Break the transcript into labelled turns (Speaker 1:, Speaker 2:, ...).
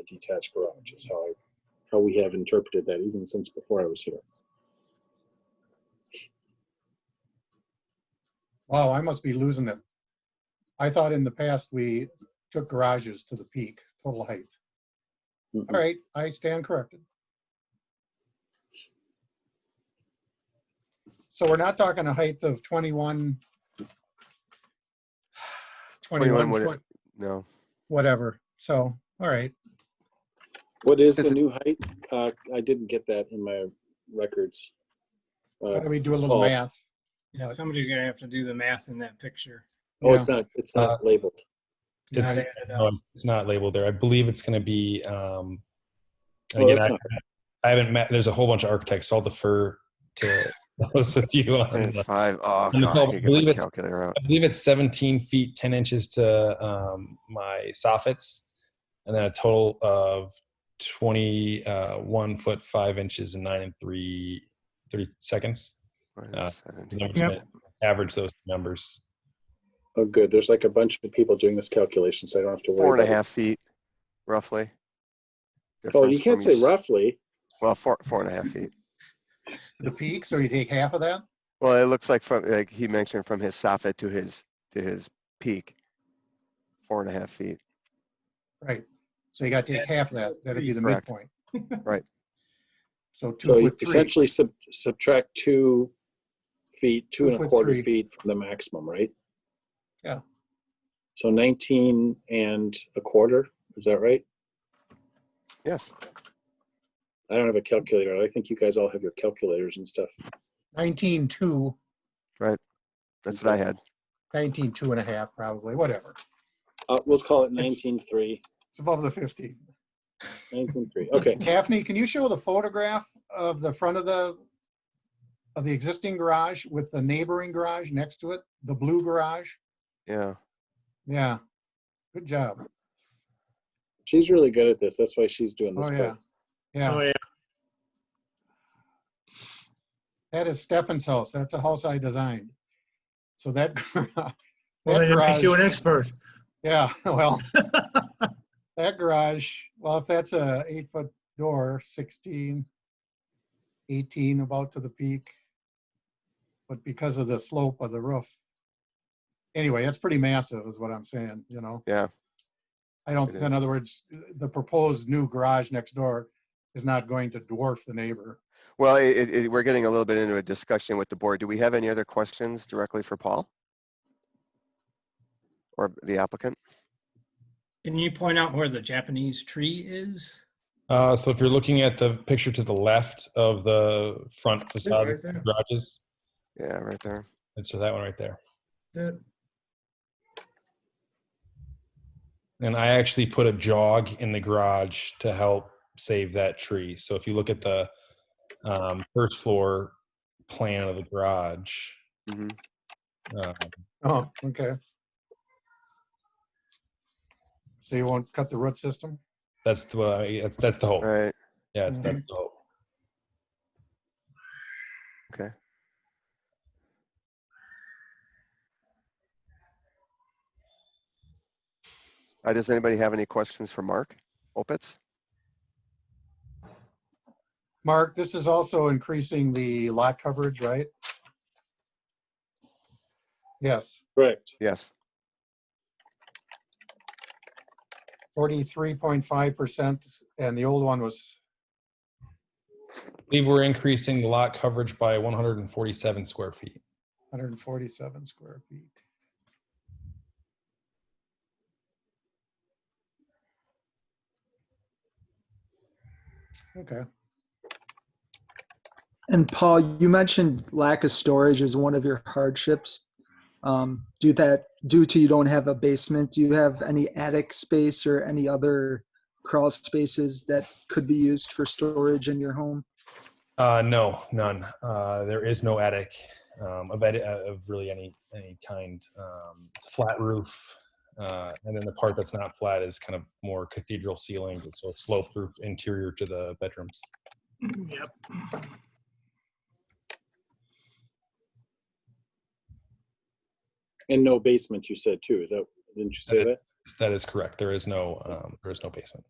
Speaker 1: a detached garage is how I, how we have interpreted that even since before I was here.
Speaker 2: Wow, I must be losing it. I thought in the past we took garages to the peak, total height. All right, I stand corrected. So we're not talking a height of 21, 21
Speaker 3: what-
Speaker 2: foot,
Speaker 3: No,
Speaker 2: whatever. So, all right.
Speaker 1: What is the
Speaker 3: Is it-
Speaker 1: new height? Uh, I didn't get that in my records.
Speaker 2: Why
Speaker 1: Uh,
Speaker 2: don't We do a little
Speaker 1: Oh.
Speaker 2: math.
Speaker 4: Yeah, somebody's gonna have to do the math in that picture.
Speaker 1: oh, it's not, it's not labeled.
Speaker 4: Not
Speaker 5: It's-
Speaker 4: added
Speaker 5: No,
Speaker 4: up.
Speaker 5: it's not labeled there. I believe it's going to be. Um, and
Speaker 1: Oh,
Speaker 5: again,
Speaker 1: that's
Speaker 5: I,
Speaker 1: not-
Speaker 5: I haven't met. There's a whole bunch of architects. So I'll defer to those of you. On,
Speaker 3: and five. Oh, God,
Speaker 5: And Nicole,
Speaker 3: I need to
Speaker 5: believe
Speaker 3: get my
Speaker 5: it's-
Speaker 3: calculator out.
Speaker 5: I believe it's 17 feet 10 inches to um, my soffits, and then a total of 21 foot 5 inches and 9 and 3 3 seconds. Uh,
Speaker 3: Seventeen.
Speaker 5: Average those numbers.
Speaker 1: Oh, good. There's like a bunch of people doing this calculation, so I don't have to worry.
Speaker 3: Four and a
Speaker 1: about it.
Speaker 3: half feet, roughly.
Speaker 1: Oh,
Speaker 3: difference
Speaker 1: you can't
Speaker 3: from
Speaker 1: say
Speaker 3: your s-
Speaker 1: roughly.
Speaker 3: Well, four, four and a half feet.
Speaker 2: The peak, so you take half of that?
Speaker 3: Well, it looks like from, like he mentioned, from his soffit to his, to his peak. Four and a half feet.
Speaker 2: Right. So you got to take half of that. That'd be the
Speaker 3: Correct.
Speaker 2: midpoint.
Speaker 3: Right.
Speaker 2: So two
Speaker 1: So you
Speaker 2: foot three.
Speaker 1: essentially sub- subtract two feet, two
Speaker 2: Two
Speaker 1: and a
Speaker 2: foot
Speaker 1: quarter
Speaker 2: three.
Speaker 1: feet from the maximum, right?
Speaker 2: Yeah.
Speaker 1: So 19 and a quarter, is that right?
Speaker 3: Yes.
Speaker 1: I don't have a calculator. I think you guys all have your calculators and stuff.
Speaker 2: 19, two,
Speaker 3: That's what I had.
Speaker 2: 19, two and a half probably, whatever.
Speaker 1: Uh, we'll call it
Speaker 2: It's-
Speaker 1: 19.3.
Speaker 2: It's above the 50.
Speaker 1: 19.3. Okay.
Speaker 6: Mm-hmm.
Speaker 2: Daphne, can you show the photograph of the front of the, of the existing garage with the neighboring garage next to it? The blue garage?
Speaker 3: Yeah.
Speaker 2: Yeah. Good job.
Speaker 1: She's really good at this. That's why she's doing this.
Speaker 2: Oh,
Speaker 1: part.
Speaker 2: yeah. Yeah,
Speaker 4: yeah.
Speaker 2: that is Stefan's house. That's a house I designed. So that, gar-
Speaker 6: Well,
Speaker 2: that
Speaker 6: that makes you
Speaker 2: garage,
Speaker 6: an expert.
Speaker 2: yeah, well, that garage, well, if that's a eight foot door, 16, 18 about to the peak. But because of the slope of the roof. Anyway, it's pretty massive is what I'm saying, you know?
Speaker 3: Yeah.
Speaker 2: I don't,
Speaker 3: It is.
Speaker 2: in other words, the proposed new garage next door is not going to dwarf the neighbor.
Speaker 3: Well, it, it- it, we're getting a little bit into a discussion with the board. Do we have any other questions directly for Paul? Or the applicant?
Speaker 4: Can you point out where the Japanese tree is?
Speaker 5: Uh, so if you're looking at the picture to the left of the front facade
Speaker 6: right there.
Speaker 5: garages,
Speaker 3: Yeah, right there.
Speaker 5: and so that one right there.
Speaker 6: That-
Speaker 5: And I actually put a jog in the garage to help save that tree. So if you look at the um, first floor plan of the garage,
Speaker 3: hmm
Speaker 5: um,
Speaker 2: Oh, okay. So you won't cut the root system?
Speaker 5: that's the uh, that's that's the hope.
Speaker 3: Right.
Speaker 5: Yeah, it's that's the hope.
Speaker 3: Okay. Uh, does anybody have any questions for Mark Opitz?
Speaker 2: Mark, this is also increasing the lot coverage, right? Yes,
Speaker 1: Correct.
Speaker 3: Yes.
Speaker 2: forty-three point five percent, and the old one was,
Speaker 5: I believe we're increasing the lot coverage by 147 square feet.
Speaker 2: 147 square feet. Okay,
Speaker 7: And Paul, you mentioned lack of storage is one of your hardships. Um, due that due to you don't have a basement, do you have any attic space or any other crawl spaces that could be used for storage in your home?
Speaker 5: Uh, no, none. Uh, there is no attic um, of, edi- uh, of really any any kind. Um, it's a flat roof, uh, and then the part that's not flat is kind of more cathedral ceiling, so slope roof interior to the bedrooms.
Speaker 6: Yep.
Speaker 1: And no basement, you said too. Is that, didn't you say
Speaker 5: Uh,
Speaker 1: that?
Speaker 5: That is correct. There is no um, there is no basement.